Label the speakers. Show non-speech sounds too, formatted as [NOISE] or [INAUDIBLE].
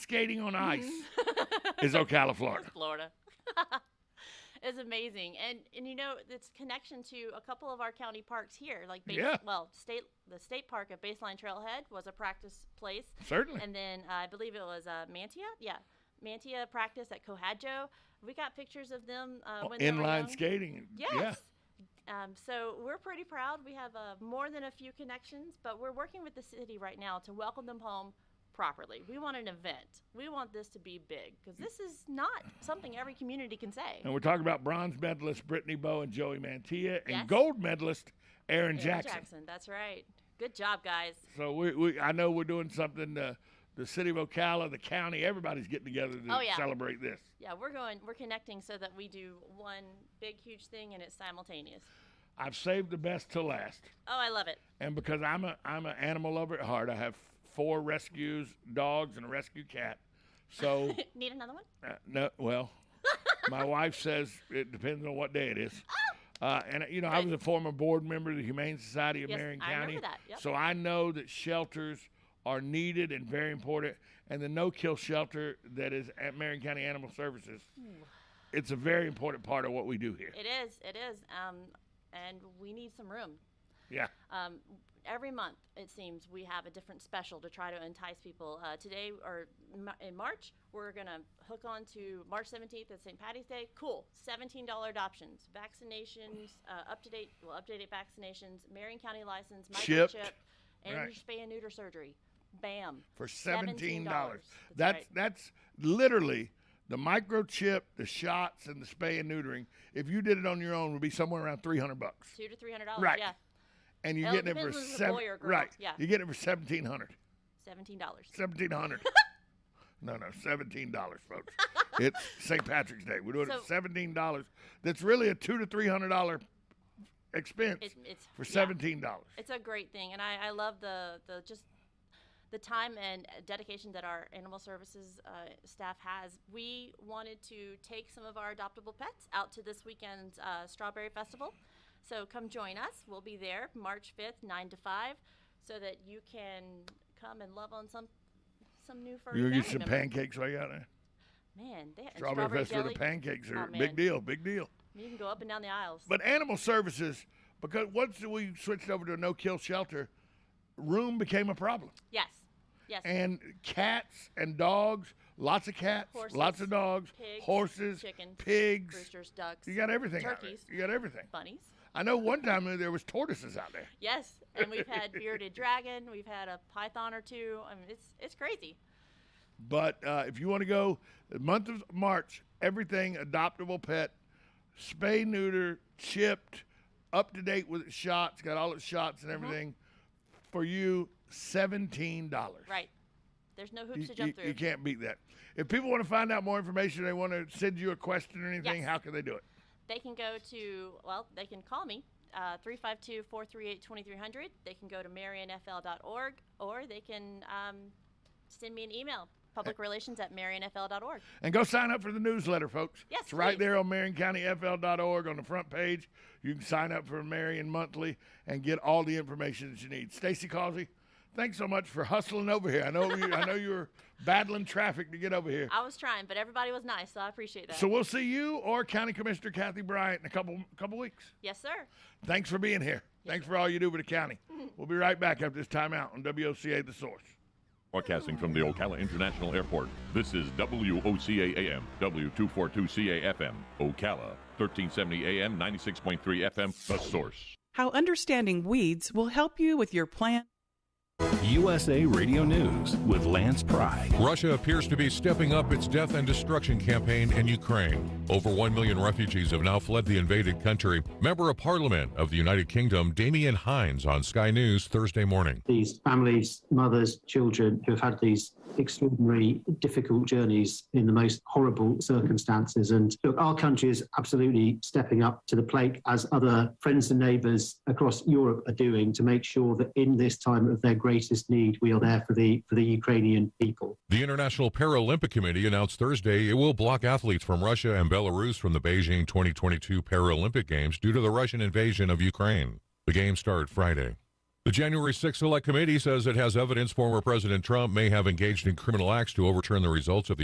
Speaker 1: skating on
Speaker 2: [LAUGHS]
Speaker 1: ice
Speaker 2: Mm-hmm.
Speaker 1: is Ocala, Florida.
Speaker 2: Florida. [LAUGHS] is amazing. And and you know, it's connection to a couple of our county parks here, like base,
Speaker 1: Yeah.
Speaker 2: well, state the state park at Baseline Trailhead was a practice place.
Speaker 1: Certainly.
Speaker 2: And then uh, I believe it was uh, Mantia. Yeah. Mantia practice at Cohadjo. We got pictures of them uh, when they were young.
Speaker 1: Oh, Inline skating.
Speaker 2: Yes.
Speaker 1: Yeah.
Speaker 2: Um, so we're pretty proud. We have uh, more than a few connections, but we're working with the city right now to welcome them home properly. We want an event. We want this to be big because this is not something every community can say.
Speaker 1: And we're talking about bronze medalist Brittany Bowe and Joey Mantilla and
Speaker 2: Yes.
Speaker 1: gold medalist Aaron,
Speaker 2: Eric
Speaker 1: Jackson.
Speaker 2: That's right. Good job, guys.
Speaker 1: So we, we I know we're doing something. Uh, the city of Ocala, the county, everybody's getting together to
Speaker 2: Oh, yeah.
Speaker 1: celebrate this.
Speaker 2: Yeah, we're going. We're connecting so that we do one big, huge thing and it's simultaneous.
Speaker 1: I've saved the best to last.
Speaker 2: Oh, I love it. [LAUGHS]
Speaker 1: And because I'm a I'm an animal lover at heart, I have four rescues, dogs, and a rescue cat. So
Speaker 2: Need another one?
Speaker 1: Uh, no, well,
Speaker 2: [LAUGHS]
Speaker 1: my wife says it depends on what day it is. Uh, and uh, you know, I was a former board member of the Humane Society of
Speaker 2: Oh. Yes,
Speaker 1: Marion
Speaker 2: I remember
Speaker 1: County,
Speaker 2: that, yep.
Speaker 1: so I know that shelters are needed and very important. And the no-kill shelter that is at Marion County Animal Services, it's a very important part of what we do here.
Speaker 2: It is. It is. Um, and we need some room.
Speaker 1: Yeah,
Speaker 2: Um, every month, it seems we have a different special to try to entice people. Uh, today or m- in March, we're gonna hook on to March 17th at St. Patty's Day. Cool, $17 adoptions, vaccinations, uh, up to date, well, updated vaccinations, Marion County license, microchip,
Speaker 1: Chipped.
Speaker 2: and
Speaker 1: Right.
Speaker 2: your spay and neuter surgery. Bam.
Speaker 1: for seventeen dollars. That's
Speaker 2: That's right.
Speaker 1: that's literally the microchip, the shots, and the spay and neutering. If you did it on your own, would be somewhere around three hundred bucks.
Speaker 2: Two to three hundred dollars.
Speaker 1: Right.
Speaker 2: Yeah,
Speaker 1: and you're
Speaker 2: Well, Oh, it
Speaker 1: getting it for
Speaker 2: depends if it's a
Speaker 1: seven,
Speaker 2: boy or a girl.
Speaker 1: right?
Speaker 2: Yeah.
Speaker 1: you're getting it for seventeen hundred.
Speaker 2: seventeen dollars.
Speaker 1: Seventeen hundred.
Speaker 2: [LAUGHS]
Speaker 1: no, no, seventeen dollars, folks. it's St. Patrick's Day. We're doing it
Speaker 2: So-
Speaker 1: at seventeen dollars. That's really a two to three hundred dollar expense
Speaker 2: It's it's
Speaker 1: for
Speaker 2: yeah.
Speaker 1: seventeen dollars.
Speaker 2: It's a great thing, and I, I love the the just the time and dedication that our animal services uh, staff has. We wanted to take some of our adoptable pets out to this weekend's uh, strawberry festival, so come join us. We'll be there March fifth, nine to five, so that you can come and love on some some new furry
Speaker 1: You gonna get
Speaker 2: family
Speaker 1: some
Speaker 2: member.
Speaker 1: pancakes right out there?
Speaker 2: Man, they and
Speaker 1: Strawberry, festival.
Speaker 2: jelly.
Speaker 1: The pancakes are
Speaker 2: Oh, man.
Speaker 1: big deal. Big deal.
Speaker 2: You can go up and down the aisles.
Speaker 1: But animal services, because once we switched over to a no-kill shelter, room became a problem.
Speaker 2: yes, yes.
Speaker 1: and cats and dogs, lots of cats, lots
Speaker 2: Horses,
Speaker 1: of dogs,
Speaker 2: pigs,
Speaker 1: horses,
Speaker 2: chickens,
Speaker 1: pigs.
Speaker 2: Roosters, ducks,
Speaker 1: You got everything. out there.
Speaker 2: turkeys.
Speaker 1: You got everything.
Speaker 2: bunnies.
Speaker 1: I know one time there was tortoises out there.
Speaker 2: Yes, and we've
Speaker 1: [LAUGHS]
Speaker 2: had bearded dragon, we've had a python or two. I mean, it's it's crazy.
Speaker 1: But uh, if you want to go, the month of March, everything adoptable pet, spay neuter, chipped, up to date with its shots, got all its shots
Speaker 2: Mm-hmm.
Speaker 1: and everything. For you, seventeen dollars.
Speaker 2: Right. There's no hoops
Speaker 1: You,
Speaker 2: to jump
Speaker 1: you-
Speaker 2: through.
Speaker 1: you can't beat that. If people want to find out more information, they want to send you a question or anything.
Speaker 2: Yes.
Speaker 1: How can they do it?
Speaker 2: They can go to, well, they can call me, uh, 352 438 2300. They can go to marionfl.org or they can um, send me an email,
Speaker 1: Eh.
Speaker 2: publicrelations at marionfl.org.
Speaker 1: And go sign up for the newsletter, folks.
Speaker 2: Yes,
Speaker 1: it's right
Speaker 2: please.
Speaker 1: there on MarionCountyFL.org on the front page. You can sign up for Marion Monthly and get all the information that you need. Stacy Causey, thanks so much for hustling over here. I know you, I know you were battling traffic to get over here.
Speaker 2: I was trying, but everybody was nice, so I appreciate that.
Speaker 1: So we'll see you or County Commissioner Kathy Bryant in a couple couple weeks.
Speaker 2: yes, sir.
Speaker 1: Thanks for being here. Thanks for all you do for the county. We'll be right back after this timeout on WOCA The Source.
Speaker 3: Broadcasting from the Ocala International Airport, this is WOCA AM, W242CA FM, Ocala, 1370 AM, 96.3 FM, The Source.
Speaker 4: How understanding weeds will help you with your plant.
Speaker 5: USA Radio News with Lance Pry.
Speaker 6: Russia appears to be stepping up its death and destruction campaign in Ukraine. Over 1 million refugees have now fled the invaded country. Member of Parliament of the United Kingdom, Damian Hines, on Sky News Thursday morning.
Speaker 7: these families, mothers, children who have had these extraordinary, difficult journeys in the most horrible circumstances. And look, our country is absolutely stepping up to the plate as other friends and neighbours across Europe are doing to make sure that in this time of their greatest need, we are there for the for the Ukrainian people.
Speaker 6: The International Paralympic Committee announced Thursday it will block athletes from Russia and Belarus from the Beijing 2022 Paralympic Games due to the Russian invasion of Ukraine. The games start Friday. The January 6th Select Committee says it has evidence former President Trump may have engaged in criminal acts to overturn the results of the